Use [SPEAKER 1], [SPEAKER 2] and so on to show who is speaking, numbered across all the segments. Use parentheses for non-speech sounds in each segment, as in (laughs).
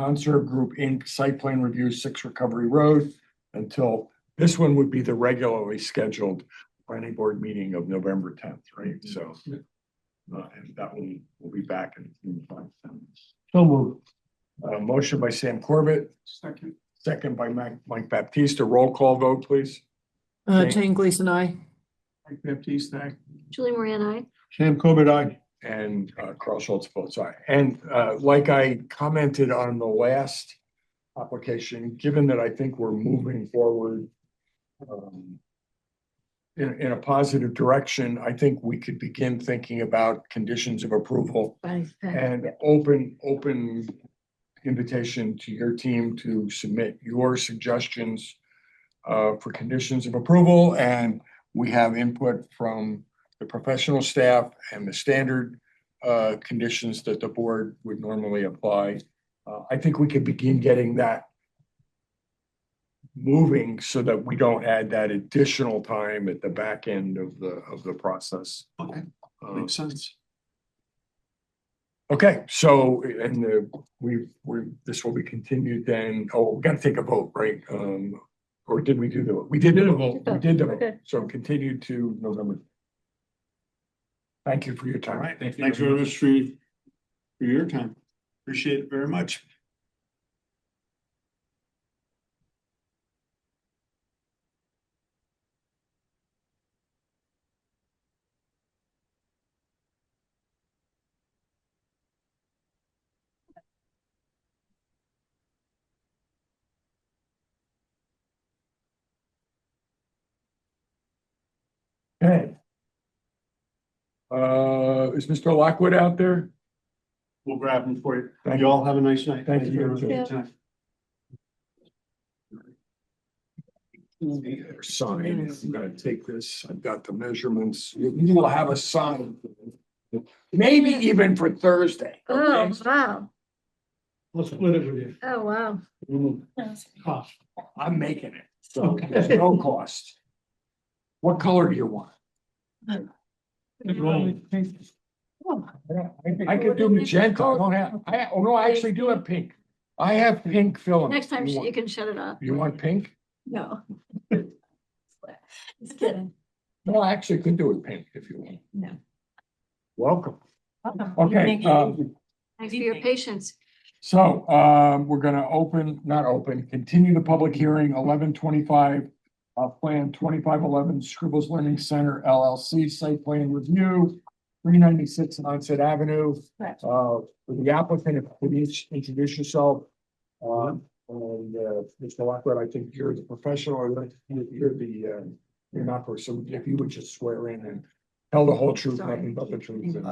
[SPEAKER 1] Conserve Group Inc. Site Plan Review, Six Recovery Road, until, this one would be the regularly scheduled planning board meeting of November tenth, right? So. Uh, and that will, we'll be back in in five minutes.
[SPEAKER 2] So move.
[SPEAKER 1] Uh, motion by Sam Corbett,
[SPEAKER 2] Second.
[SPEAKER 1] second by Mike, Mike Baptiste, roll call vote, please.
[SPEAKER 3] Uh,
[SPEAKER 1] Jane-
[SPEAKER 3] Jane Gleason, I.
[SPEAKER 2] Mike Baptiste, aye.
[SPEAKER 4] Julie Moran, I.
[SPEAKER 1] Sam Corbett, I And uh, Carl Schultz votes aye. And uh, like I commented on the last application, given that I think we're moving forward um, in, in a positive direction, I think we could begin thinking about conditions of approval and open, open invitation to your team to submit your suggestions uh, for conditions of approval, and we have input from the professional staff and the standard uh, conditions that the board would normally apply. Uh, I think we could begin getting that moving so that we don't add that additional time at the back end of the, of the process.
[SPEAKER 2] Okay,
[SPEAKER 1] Uh,
[SPEAKER 2] makes sense.
[SPEAKER 1] Okay, so, and the, we, we, this will be continued then, oh, we gotta take a vote, right? Um, or did we do the, we did the vote, we did the vote,
[SPEAKER 4] Okay.
[SPEAKER 1] so continued to November. Thank you for your time.
[SPEAKER 2] Thanks very much for, your- for your time. Appreciate it very much.
[SPEAKER 1] Okay. Uh, is Mr. Lockwood out there?
[SPEAKER 2] We'll grab them for you.
[SPEAKER 1] Thank
[SPEAKER 2] You all have a nice night.
[SPEAKER 1] Thank you.
[SPEAKER 2] very much for your
[SPEAKER 4] Yeah.
[SPEAKER 2] time.
[SPEAKER 1] There's Sign, if I'm gonna take this, I've got the measurements, you you will have a sign. Maybe even for Thursday.
[SPEAKER 4] Oh, wow.
[SPEAKER 2] We'll split it with
[SPEAKER 4] Oh, wow.
[SPEAKER 2] you. Cost.
[SPEAKER 1] I'm making it, so there's no cost. What color do you want? I could do magenta, I don't have, I, oh no, I actually do have pink. I have pink filament.
[SPEAKER 4] Next time
[SPEAKER 1] You
[SPEAKER 4] sh- you
[SPEAKER 1] want-
[SPEAKER 4] can shut it off.
[SPEAKER 1] You want pink?
[SPEAKER 4] No. (laughs) Just kidding.
[SPEAKER 1] No, I actually could do it pink if you want.
[SPEAKER 4] No.
[SPEAKER 1] Welcome. Okay, um,
[SPEAKER 4] Thanks for your patience.
[SPEAKER 1] So um, we're gonna open, not open, continue the public hearing eleven twenty-five. Uh, plan twenty-five eleven Scribbles Learning Center LLC site plan review, three ninety-six Onset Avenue.
[SPEAKER 4] Correct.
[SPEAKER 1] Uh, for the applicant, if you could each introduce yourself. Um, and uh, Mr. Lockwood, I think you're the professional, or the- you're the, uh, you're not person, if you would just swear in and tell the whole truth, nothing but the truth. and-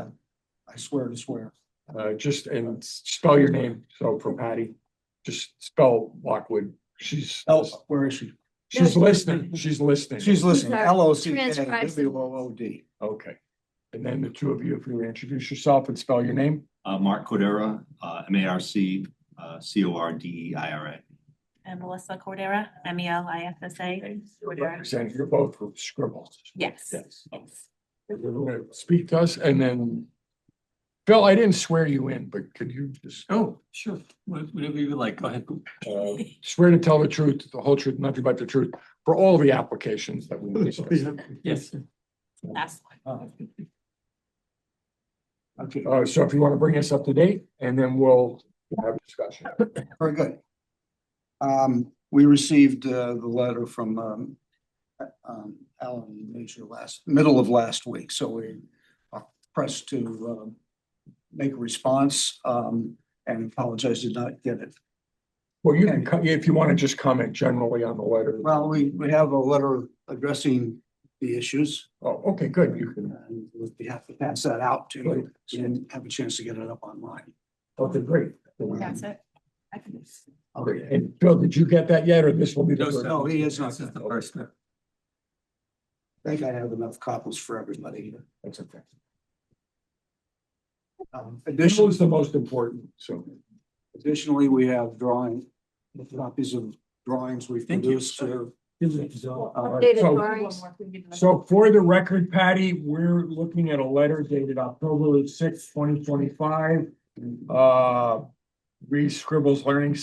[SPEAKER 2] I swear to swear.
[SPEAKER 1] uh, just and spell your name. So for Patty, just spell Lockwood. She's,
[SPEAKER 5] Oh,
[SPEAKER 2] Else, where is she?
[SPEAKER 1] she's listening. She's listening.
[SPEAKER 2] She's listening.
[SPEAKER 4] Sorry.
[SPEAKER 2] L O C K
[SPEAKER 4] Transcribes them.
[SPEAKER 2] W O O D.
[SPEAKER 1] Okay. And then the two of you, if you introduce yourself and spell your name.
[SPEAKER 6] Uh, Mark Cordera, uh, M A R C, uh, C O R D E I R A.
[SPEAKER 7] And Melissa Cordera, M E L I F S A. Cordera.
[SPEAKER 1] Represent, you're both from Scribbles.
[SPEAKER 7] Yes.
[SPEAKER 6] Yes.
[SPEAKER 1] You're gonna Speak to us and then Phil, I didn't swear you in, but could you just
[SPEAKER 5] Oh, sure, Wha- whatever you would like, go ahead.
[SPEAKER 1] uh, swear to tell the truth, the whole truth, nothing but the truth for all the applications that
[SPEAKER 5] (laughs)
[SPEAKER 1] we discussed?
[SPEAKER 5] Yes,
[SPEAKER 7] (laughs) Last one.
[SPEAKER 2] Okay,
[SPEAKER 1] Uh, so if you want to bring us up to date and then we'll have discussion.
[SPEAKER 2] very good. Um, we received uh, the letter from um. uh, Um, Alan Major last, middle of last week, so we are pressed to um. Make a response um and apologize did not get it.
[SPEAKER 1] Well, you can, co- if you want to just comment generally on the letter.
[SPEAKER 2] Well, we we have a letter addressing the issues.
[SPEAKER 1] Oh, okay, good. You can,
[SPEAKER 2] And we have to pass that out to you, so you didn't have a chance to get it up online.
[SPEAKER 1] okay, great.
[SPEAKER 7] That's it. I can-
[SPEAKER 1] Okay, and Phil, did you get that yet, or this will be the
[SPEAKER 5] No,
[SPEAKER 1] first?
[SPEAKER 5] sir.
[SPEAKER 2] No, he is not.
[SPEAKER 5] this is the first. one.
[SPEAKER 2] I think I have enough copies for everybody here.
[SPEAKER 1] That's okay.
[SPEAKER 2] Um,
[SPEAKER 1] This
[SPEAKER 2] additionally,
[SPEAKER 1] was the most important, so.
[SPEAKER 2] additionally, we have drawing, copies of drawings we've
[SPEAKER 5] Thank you.
[SPEAKER 2] produced. uh, uh,
[SPEAKER 4] Updated
[SPEAKER 1] so-
[SPEAKER 4] drawings.
[SPEAKER 1] So for the record, Patty, we're looking at a letter dated October sixth, twenty twenty-five. Uh, Reed Scribbles Learning